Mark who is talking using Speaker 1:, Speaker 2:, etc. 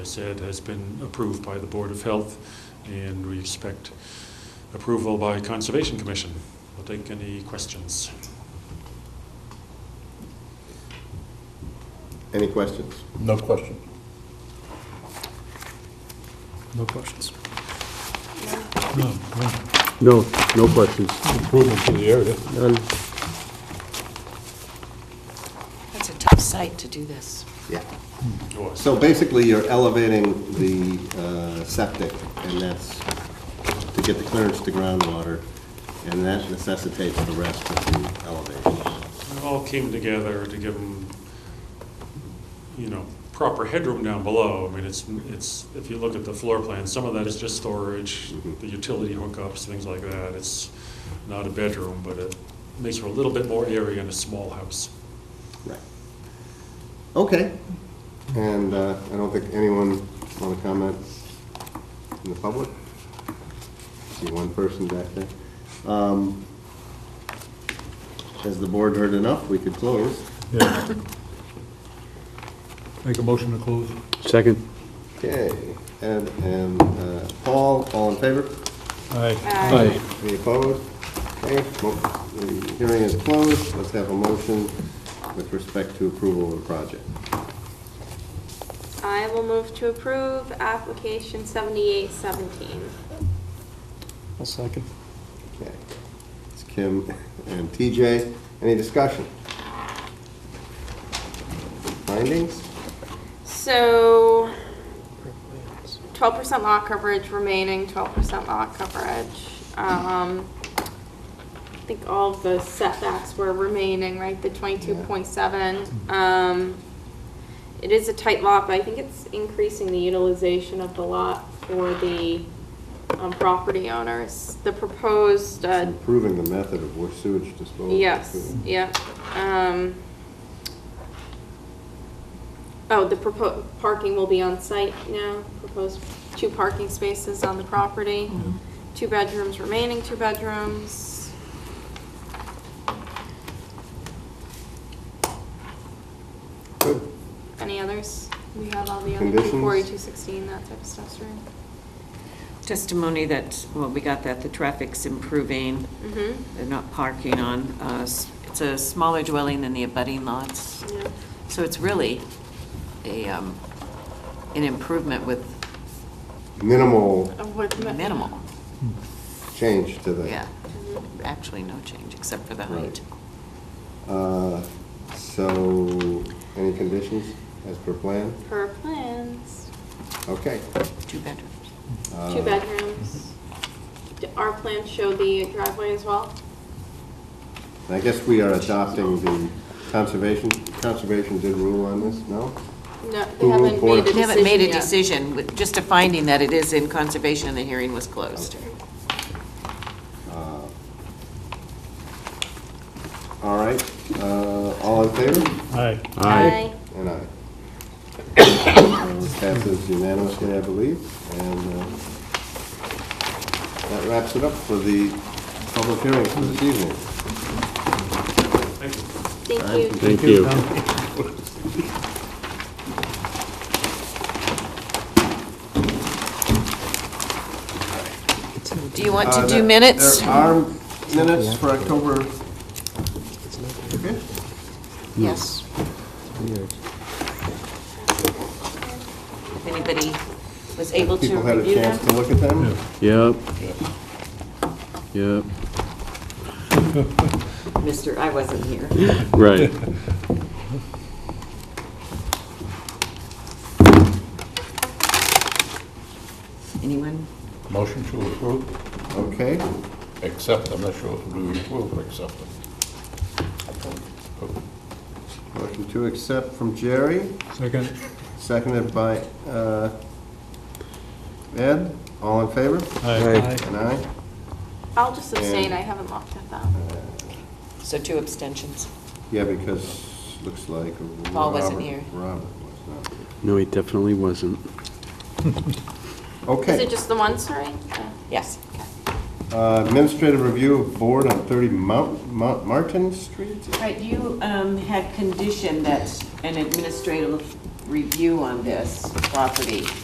Speaker 1: I said, has been approved by the Board of Health, and we expect approval by Conservation Commission. We'll take any questions.
Speaker 2: Any questions?
Speaker 3: No question.
Speaker 4: No questions.
Speaker 5: No, no questions.
Speaker 3: Improvement to the area.
Speaker 5: None.
Speaker 6: That's a tough site to do this.
Speaker 2: Yeah.
Speaker 1: Yours.
Speaker 2: So basically, you're elevating the uh, septic, and that's to get the clearance to groundwater, and that necessitates the rest of the elevation.
Speaker 1: It all came together to give them, you know, proper headroom down below. I mean, it's, it's, if you look at the floor plan, some of that is just storage, the utility hookups, things like that. It's not a bedroom, but it makes for a little bit more area in a small house.
Speaker 2: Right. Okay. And uh, I don't think anyone want to comment in the public? See one person back there. Um, Has the board heard enough? We could close.
Speaker 3: Yeah. Make a motion to close.
Speaker 5: Second.
Speaker 2: Okay, Ed and uh, Paul, all in favor?
Speaker 3: Aye.
Speaker 5: Aye.
Speaker 2: Any opposed? Okay, mo- the hearing is closed. Let's have a motion with respect to approval of the project.
Speaker 7: I will move to approve application 7817.
Speaker 4: I'll second.
Speaker 2: Okay. It's Kim and TJ. Any discussion? Findings?
Speaker 7: So 12% lot coverage, remaining 12% lot coverage. Um, I think all of the setbacks were remaining, right, the 22.7. Um, It is a tight lot, but I think it's increasing the utilization of the lot for the um, property owners. The proposed uh,
Speaker 2: Improving the method of wa- sewage disposal.
Speaker 7: Yes, yeah. Um, Oh, the proposed, parking will be on site now, proposed two parking spaces on the property, two bedrooms, remaining two bedrooms.
Speaker 2: Good.
Speaker 7: Any others? We have all the other
Speaker 2: Conditions?
Speaker 7: 240, 216, that type of stuff, right?
Speaker 6: Testimony that, well, we got that the traffic's improving,
Speaker 7: Mm-hmm,
Speaker 6: they're not parking on, uh, s- it's a smaller dwelling than the abutting lots.
Speaker 7: yeah.
Speaker 6: So it's really a, um, an improvement with
Speaker 2: Minimal
Speaker 7: Uh, with mi-
Speaker 6: minimal,
Speaker 2: change to the.
Speaker 6: yeah. Actually, no change except for the
Speaker 2: Right.
Speaker 6: height.
Speaker 2: Uh, So, any conditions as per plan?
Speaker 7: Per plans,
Speaker 2: Okay.
Speaker 6: Two bedrooms.
Speaker 2: Um,
Speaker 7: two bedrooms. D- Our plans show the driveway as well?
Speaker 2: I guess we are adopting the conservation, conservation did rule on this, no?
Speaker 7: No, they
Speaker 2: Who will
Speaker 7: haven't
Speaker 2: board-
Speaker 7: made a decision
Speaker 6: They haven't made a
Speaker 7: yet.
Speaker 6: decision, with just a finding that it is in conservation and the hearing was closed.
Speaker 2: Uh, All right, uh, all in favor?
Speaker 3: Aye.
Speaker 7: Aye.
Speaker 2: And aye. Uh, Passes unanimously, I believe, and uh, that wraps it up for the public hearing for this evening.
Speaker 1: Thank you.
Speaker 7: Thank you.
Speaker 5: Thank you.
Speaker 6: Do you want
Speaker 2: Uh,
Speaker 6: to
Speaker 2: there-
Speaker 6: do minutes?
Speaker 2: There are minutes for October
Speaker 6: Yes. If anybody was able to
Speaker 2: People had a
Speaker 6: review
Speaker 2: chance
Speaker 6: them?
Speaker 2: to look at them?
Speaker 5: Yep. Yep,
Speaker 6: Mister, I wasn't here.
Speaker 5: right.
Speaker 6: Anyone?
Speaker 3: Motion to approve,
Speaker 2: Okay,
Speaker 3: accept, I'm not sure if we approve or accept them.
Speaker 2: motion to accept from Jerry,
Speaker 3: Second.
Speaker 2: seconded by uh, Ed, all in favor?
Speaker 3: Aye.
Speaker 2: And aye?
Speaker 7: I'll just abstain, I haven't looked at that.
Speaker 6: So two abstentions.
Speaker 2: Yeah, because looks like Robert.
Speaker 6: Paul wasn't here.
Speaker 2: Robert was not here.
Speaker 5: No, he definitely wasn't.
Speaker 7: Is it
Speaker 2: Okay,
Speaker 7: just the one, sorry? Okay.
Speaker 6: Yes.
Speaker 2: uh, administrative review of board on 30 Mount Mount Martin Street?
Speaker 6: Right, you um, had conditioned that an administrative review on this property.